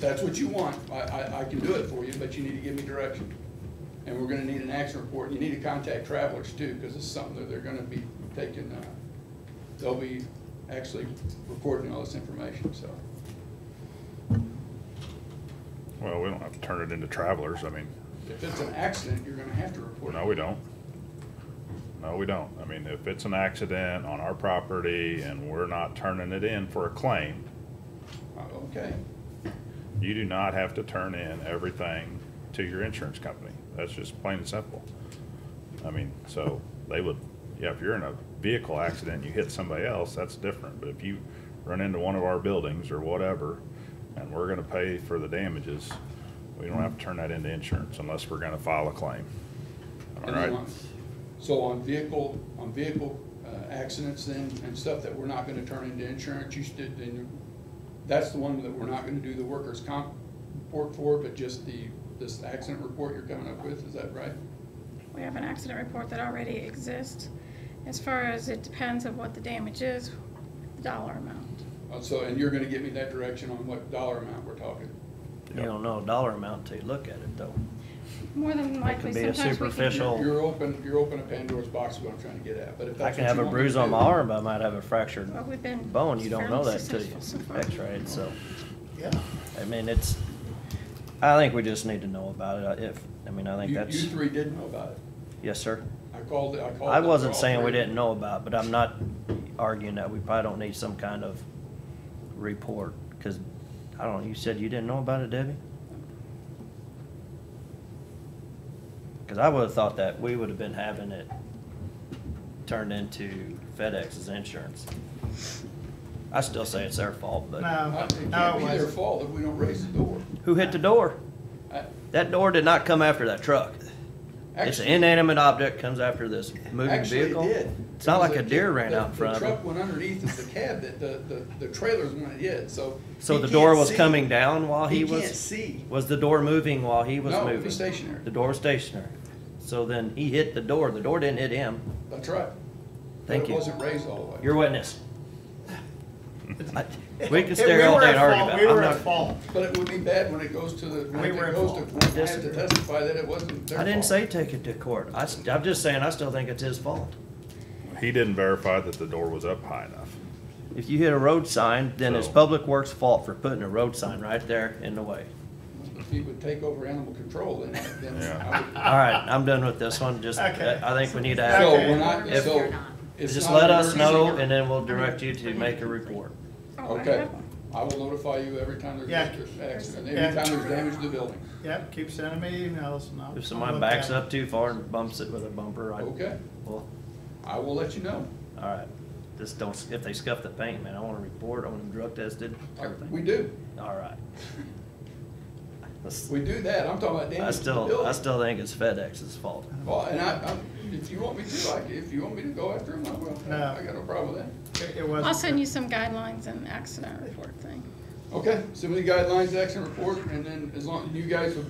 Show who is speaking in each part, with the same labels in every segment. Speaker 1: that's what you want, I, I, I can do it for you, but you need to give me direction. And we're gonna need an action report, and you need to contact travelers too, because it's something that they're gonna be taking, uh, they'll be actually recording all this information, so.
Speaker 2: Well, we don't have to turn it into travelers, I mean,
Speaker 1: If it's an accident, you're gonna have to report
Speaker 2: no,
Speaker 1: it.
Speaker 2: we don't. No, we don't. I mean, if it's an accident on our property and we're not turning it in for a claim,
Speaker 1: Uh, Okay,
Speaker 2: you do not have to turn in everything to your insurance company. That's just plain and simple. I mean, so they would, yeah, if you're in a vehicle accident, and you hit somebody else, that's different. But if you run into one of our buildings or whatever, and we're gonna pay for the damages, we don't have to turn that into insurance unless we're gonna file a claim. All
Speaker 1: And then
Speaker 2: right?
Speaker 1: on- So on vehicle, on vehicle uh, accidents then, and stuff that we're not gonna turn into insurance, you should, then, you- that's the one that we're not gonna do the workers' comp report for, but just the, this accident report you're coming up with, is that right?
Speaker 3: We have an accident report that already exists. As far as it depends of what the damage is, the dollar amount.
Speaker 1: Uh, So, and you're gonna give me that direction on what dollar amount we're talking?
Speaker 4: You don't know a dollar amount till you look at it, though.
Speaker 3: More than
Speaker 4: That
Speaker 3: likely,
Speaker 4: could be a
Speaker 3: sometimes we
Speaker 4: superficial-
Speaker 3: can.
Speaker 4: Oh.
Speaker 1: You're open, you're open a Pandora's box, is what I'm trying to get at, but if
Speaker 4: I
Speaker 1: that's
Speaker 4: can
Speaker 1: what
Speaker 4: have
Speaker 1: you
Speaker 4: a
Speaker 1: want me
Speaker 4: bruise
Speaker 1: to
Speaker 4: on
Speaker 1: do-
Speaker 4: my arm, but I might have a fractured
Speaker 3: Well, we've been
Speaker 4: bone. You don't know
Speaker 3: fairly
Speaker 4: that till you
Speaker 3: successful so far.
Speaker 4: x-ray it, so.
Speaker 5: Yeah,
Speaker 4: I mean, it's, I think we just need to know about it. I- If, I mean, I think
Speaker 1: You,
Speaker 4: that's,
Speaker 1: you three did know about it.
Speaker 4: yes, sir.
Speaker 1: I called, I called.
Speaker 4: I
Speaker 1: them
Speaker 4: wasn't
Speaker 1: all
Speaker 4: saying we
Speaker 1: three.
Speaker 4: didn't know about, it, but I'm not arguing that we probably don't need some kind of report, because, I don't know, you said you didn't know about it, Debbie? Because I would've thought that we would've been having it turned into FedEx's insurance. I still say it's their fault, but
Speaker 1: Uh,
Speaker 5: no,
Speaker 1: It
Speaker 5: no,
Speaker 1: can't
Speaker 5: it
Speaker 1: be their
Speaker 5: wasn't.
Speaker 1: fault if we don't raise the door.
Speaker 4: who hit the door?
Speaker 1: I-
Speaker 4: That door did not come after that truck. It's an
Speaker 1: actually-
Speaker 4: inanimate object comes after this moving
Speaker 1: actually, it
Speaker 4: vehicle.
Speaker 1: did.
Speaker 4: It's not like
Speaker 1: Because
Speaker 4: a
Speaker 1: the-
Speaker 4: deer ran
Speaker 1: the-
Speaker 4: out in front of it.
Speaker 1: The truck went underneath of the cab that the, the, the trailers went in, so.
Speaker 4: So
Speaker 1: he
Speaker 4: the
Speaker 1: can't
Speaker 4: door was
Speaker 1: see.
Speaker 4: coming down while he was?
Speaker 1: can't see.
Speaker 4: Was the door moving while he was
Speaker 1: No, it
Speaker 4: moving?
Speaker 1: was stationary.
Speaker 4: The door was stationary. So then he hit the door. The door didn't hit him.
Speaker 1: That's right.
Speaker 4: Thank
Speaker 1: But it
Speaker 4: you.
Speaker 1: wasn't raised all the way.
Speaker 4: Your witness. I- We can
Speaker 5: It-
Speaker 4: stare all
Speaker 5: were
Speaker 4: day
Speaker 5: at
Speaker 4: and argue
Speaker 5: fault.
Speaker 4: about
Speaker 5: We
Speaker 4: it. I'm
Speaker 5: were at
Speaker 4: not-
Speaker 5: fault.
Speaker 1: But it would be bad when it goes to the, when
Speaker 5: We
Speaker 1: it
Speaker 5: were at
Speaker 1: goes to,
Speaker 5: fault.
Speaker 1: court, I have to
Speaker 4: Disagree.
Speaker 1: testify that it wasn't their
Speaker 4: I didn't
Speaker 1: fault.
Speaker 4: say take it to court. I, am just saying, I still think it's his fault.
Speaker 2: He didn't verify that the door was up high enough.
Speaker 4: If you hit a road sign, then it's
Speaker 2: So-
Speaker 4: Public Works' fault for putting a road sign right there in the way.
Speaker 1: If he would take over animal control, then, then I
Speaker 2: Yeah.
Speaker 1: would.
Speaker 4: All right, I'm done with this one. Just,
Speaker 5: Okay.
Speaker 4: I think we need to
Speaker 1: So
Speaker 4: have,
Speaker 5: Okay.
Speaker 1: we're not,
Speaker 4: If-
Speaker 1: so. it's
Speaker 4: just
Speaker 1: not
Speaker 4: let
Speaker 1: an
Speaker 4: us
Speaker 1: emergency.
Speaker 4: know and then we'll direct you to make a report.
Speaker 3: Oh, I
Speaker 1: Okay,
Speaker 3: have one.
Speaker 1: I will notify you every time there's
Speaker 5: Yeah.
Speaker 1: an accident,
Speaker 5: Yeah.
Speaker 1: every time there's damage to the building,
Speaker 5: Yep, keep sending me emails and I'll.
Speaker 4: If
Speaker 5: I'll
Speaker 4: somebody
Speaker 5: look
Speaker 4: backs
Speaker 5: at it.
Speaker 4: up too far and bumps it with a bumper, I,
Speaker 1: okay?
Speaker 4: well,
Speaker 1: I will let you know.
Speaker 4: all right. Just don't, if they scuff the paint, man, I want a report, I want them drug tested,
Speaker 1: We
Speaker 4: everything.
Speaker 1: do,
Speaker 4: All right. Let's-
Speaker 1: we do that, I'm talking about
Speaker 4: I
Speaker 1: damage to the
Speaker 4: still, I
Speaker 1: building.
Speaker 4: still think it's FedEx's fault.
Speaker 1: Well, and I, I'm, if you want me to, I, if you want me to go after him, I will,
Speaker 5: No.
Speaker 1: I got no problem with that.
Speaker 5: It- It wasn't.
Speaker 3: I'll send you some guidelines and accident report thing.
Speaker 1: Okay, so the guidelines, action report, and then as long, you guys will.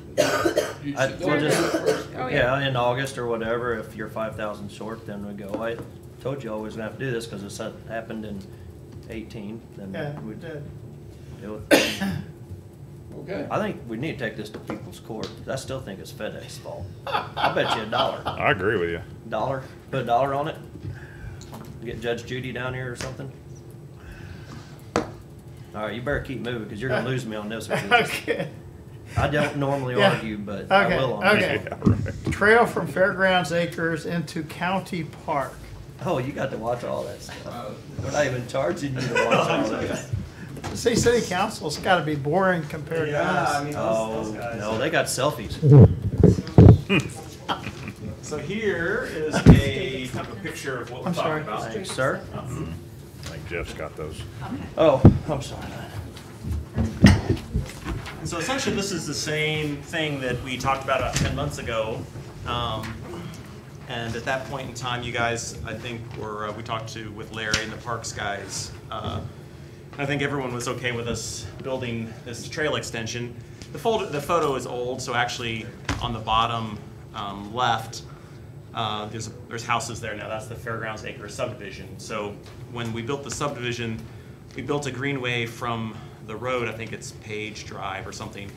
Speaker 1: you
Speaker 4: I-
Speaker 1: should-
Speaker 4: we'll just-
Speaker 1: first.
Speaker 3: Oh, yeah.
Speaker 4: Yeah, in August or whatever, if you're five thousand short, then we go, I told you I was gonna have to do this, cause it's had- happened in eighteen,
Speaker 5: Yeah,
Speaker 4: then
Speaker 5: we
Speaker 4: we
Speaker 5: did.
Speaker 4: do it.
Speaker 1: Okay,
Speaker 4: I think we need to take this to people's court, 'cause I still think it's FedEx's fault. I bet you a dollar.
Speaker 2: I agree with you.
Speaker 4: Dollar, put a dollar on it. Get Judge Judy down here or something. All right, you better keep moving because you're gonna lose me on this. one.
Speaker 5: Okay.
Speaker 4: I don't normally
Speaker 5: Yeah.
Speaker 4: argue, but I
Speaker 5: Okay,
Speaker 4: will on this.
Speaker 5: okay.
Speaker 4: one.
Speaker 2: Yeah, right.
Speaker 5: Trail from Fairgrounds Acres into County Park.
Speaker 4: Oh, you got to watch all that stuff. We're not even charging you to watch all that.
Speaker 5: See, city council's gotta be boring compared to
Speaker 6: Yeah, I
Speaker 5: us.
Speaker 6: mean, those,
Speaker 4: Oh,
Speaker 6: those guys.
Speaker 4: no, they got selfies.
Speaker 6: So here is a kind of a picture of what we're
Speaker 5: I'm
Speaker 6: talking
Speaker 5: sorry.
Speaker 6: about.
Speaker 4: Thanks, sir.
Speaker 2: I think Jeff's got those.
Speaker 4: Oh, I'm sorry.
Speaker 6: And so essentially, this is the same thing that we talked about about 10 months ago. Um, and at that point in time, you guys, I think, were, uh, we talked to with Larry and the Parks guys. Uh, I think everyone was okay with us building this trail extension. The, folder, the photo is old, so actually on the bottom um, left, uh, there's, there's houses there now. That's the Fairgrounds Acre subdivision. So when we built the subdivision, we built a greenway from the the road, I think it's Page Drive or something,